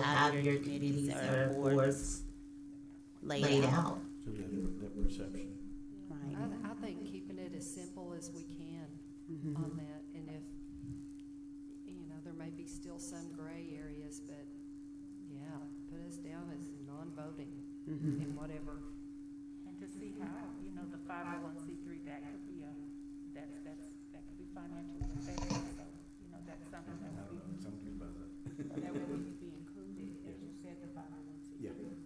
lot of your duties or boards laid out. So that, that perception. Right. I, I think keeping it as simple as we can Mm-hmm. Mm-hmm. on that, and if, you know, there may be still some gray areas, but, yeah, put us down as non-voting Mm-hmm. in whatever. And to see how, you know, the five oh one C three, that could be a, that's, that's, that could be financially affected, so, you know, that's something that would be, Uh, Something about that. that would need to be included, as you said, the five oh one C Yeah. three.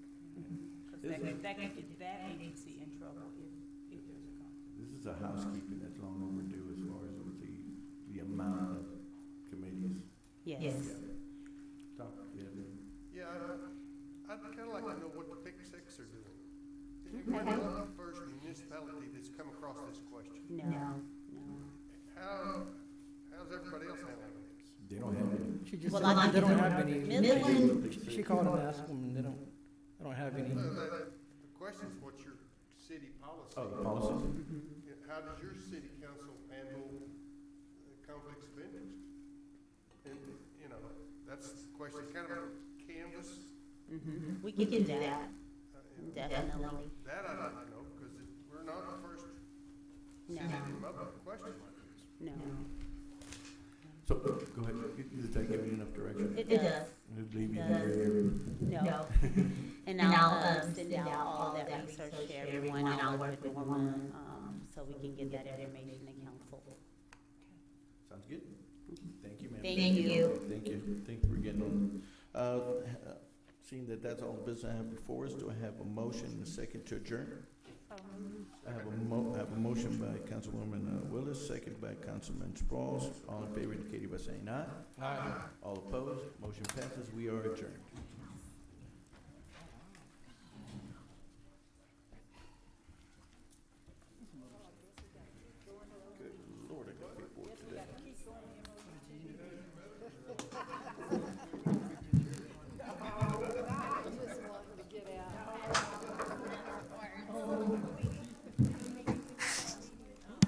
Cause that could, that could get that agency in trouble if, if there's a conflict. This is a housekeeping that's long overdue as far as with the, the amount of committees. Yes. Talk, yeah, Yeah, I- I'd kind of like to know what the Big Six are doing. You might be the first municipality that's come across this question. No, no. How, how's everybody else handling this? they don't have any. She just Well, said I they think don't have any. Midland, She- She called and asked them, and they don't, they don't have any. No, Uh, The the question's what's your city policy? Oh, the policies? Yeah, How does your city council handle uh, conflicts of interest? And, you know, that's the question, kind of a canvas, Hmm? we can do that, uh, you know, definitely. that I'd like to know, because we're not the first No, city to come up with a question like this. no. So, go ahead, does that give you enough direction? It does, It'd leave you It there. no. And I'll um, send out all of that research to everyone. I'll work with one, um, so we can get that information to council. Sounds good. Thank you, ma'am. Thank Thank you. you. Thank you. Thank you for getting on. Uh, Seeing that that's all the business I have before us, do I have a motion and a second to adjourn? I have a mo, I have a motion by Councilwoman uh, Willis, second by Councilman Sprouls. All in favor indicated by saying aye. Aye. All opposed, motion passes. We are adjourned. Good lord, I got paperwork today.